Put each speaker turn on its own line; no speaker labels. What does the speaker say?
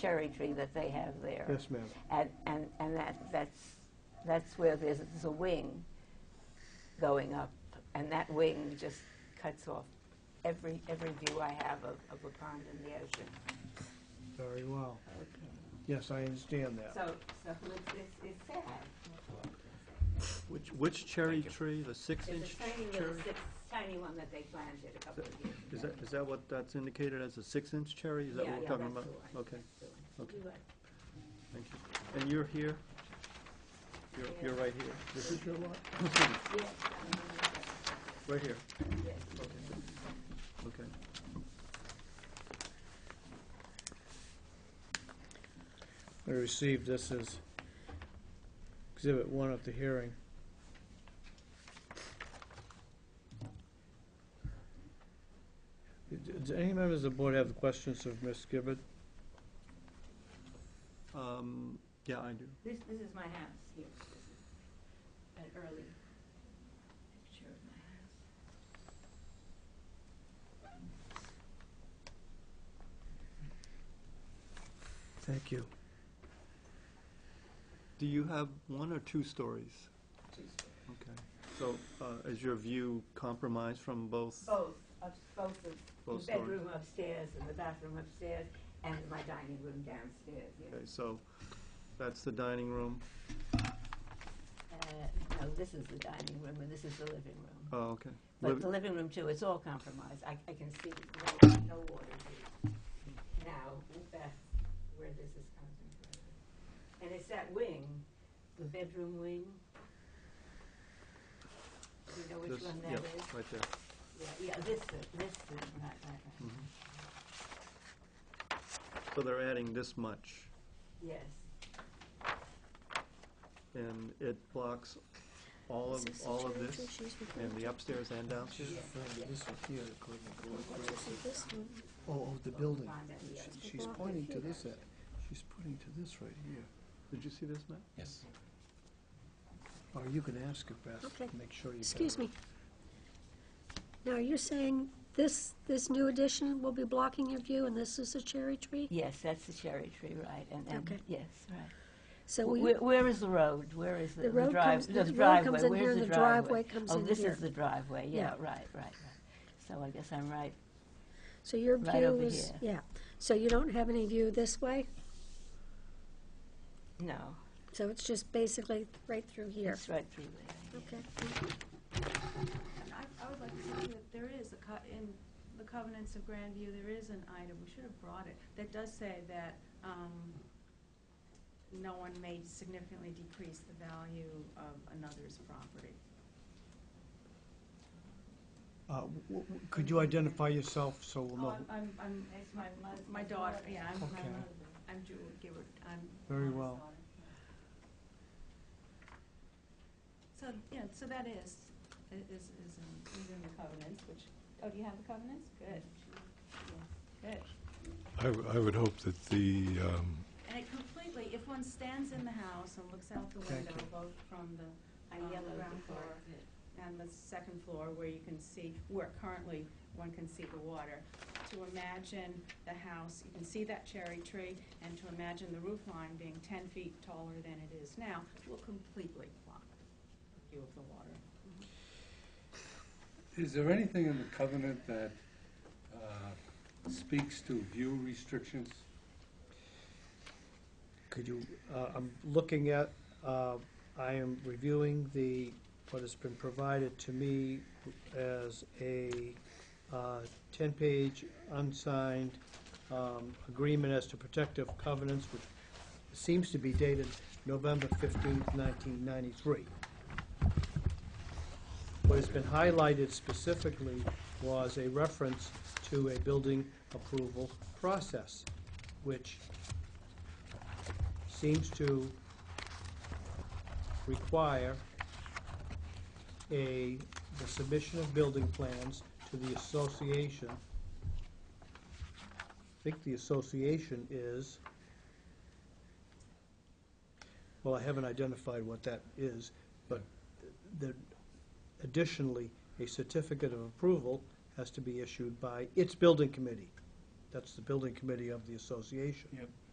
cherry tree that they have there.
Yes, ma'am.
And, and, and that, that's, that's where there's, there's a wing going up, and that wing just cuts off every, every view I have of, of the pond and the ocean.
Very well. Yes, I understand that.
So, so it's, it's, it's sad.
Which, which cherry
Thank you.
tree, the
It's
six-inch
a tiny little,
cherry?
six, tiny one that they planted a couple of years ago.
Is that, is that what that's indicated as a six-inch cherry? Is that
Yeah,
what we're
yeah,
talking
that's
about?
the one,
Okay,
that's the one.
okay,
You were-
thank you. And you're here? You're,
Yeah.
you're right here. This is your lot?
yes, I remember
Right here,
that, yes.
okay.
I received this as exhibit one at the hearing. Do- Do any members of the board have questions of Ms. Gibbard?
Um, yeah, I do.
This, this is my house here. This is an early picture of my house.
Thank you.
Do you have one or two stories?
Both,
Okay, so, uh, is your view compromised from both,
of, both of,
both stories?
the bedroom upstairs and the bathroom upstairs and my dining room downstairs, yes.
Okay, so, that's the dining room,
Uh, no, this is the dining room and this is the living room.
oh, okay.
But
Liv-
the living room too, it's all compromised. I, I can see no, no water here. Now, that's where this is concentrated. And it's that wing, the bedroom wing. Do you know which
this-
one
yeah,
that is?
Right there.
Yeah, yeah, this, is- this, is right, right, right.
Mhm. So they're adding this much,
Yes,
and it blocks all of, all of this, and the upstairs and downstairs?
Yeah.
This one here, according to what Grace is-
This one,
Oh, oh, the building.
on that, yes.
She- She's pointing to this, at- she's pointing to this right here.
Did you see this, Matt?
Yes.
Or you can ask her, Beth,
Okay.
make sure you. got
excuse
it.
me. Now, you're saying this, this new addition will be blocking your view, and this is a cherry tree?
Yes, that's the cherry tree, right, and, and,
Okay.
yes, right.
So we,
Where, where is the road? Where is the
The
the
road
drive?
comes-
The
the road
driveway,
comes in here
where's
and
the
the
driveway?
driveway comes
Oh,
in
this
here.
is the driveway, yeah,
Yeah.
right, right, right. So I guess I'm right,
so your
right
view
over
is,
here.
yeah, so you don't have any view this way?
no,
So it's just basically right through here?
it's right through there.
Okay.
And I, I would like to say that there is a co- in the covenants of Grandview, there is an item, we should have brought it, that does say that, um, no one may significantly decrease the value of another's property.
Uh, w- w- Could you identify yourself so we'll
Oh,
know?
Uh,
I'm, I'm, I'm, it's my, my daughter, yeah, I'm,
Okay.
I'm, I'm Jewel Gibbard, I'm.
Very
Donna's
well.
daughter. So, yeah, so that is, i- is, is in, is in the covenants, which, oh, do you have the covenants? Good. Yes, Good.
I, w- I would hope that the, um,
And it completely, if one stands in the house and looks out the
Thank
window,
you.
both from the
I
um,
yellowed
ground
the
floor
part that-
and the second floor where you can see, where currently one can see the water, to imagine the house, you can see that cherry tree, and to imagine the roof line being ten feet taller than it is now, will completely block the view of the water.
Is there anything in the covenant that uh, speaks to view restrictions?
Could you, uh, I'm looking at, uh, I am reviewing the, what has been provided to me as a uh, 10-page unsigned um, agreement as to protective covenants, which seems to be dated November 15th, 1993. What has been highlighted specifically was a reference to a building approval process, which seems to require a, the submission of building plans to the association. I think the association is, well, I haven't identified what that is, but the, additionally, a certificate of approval has to be issued by its building committee. That's the building committee of the association.
Yep.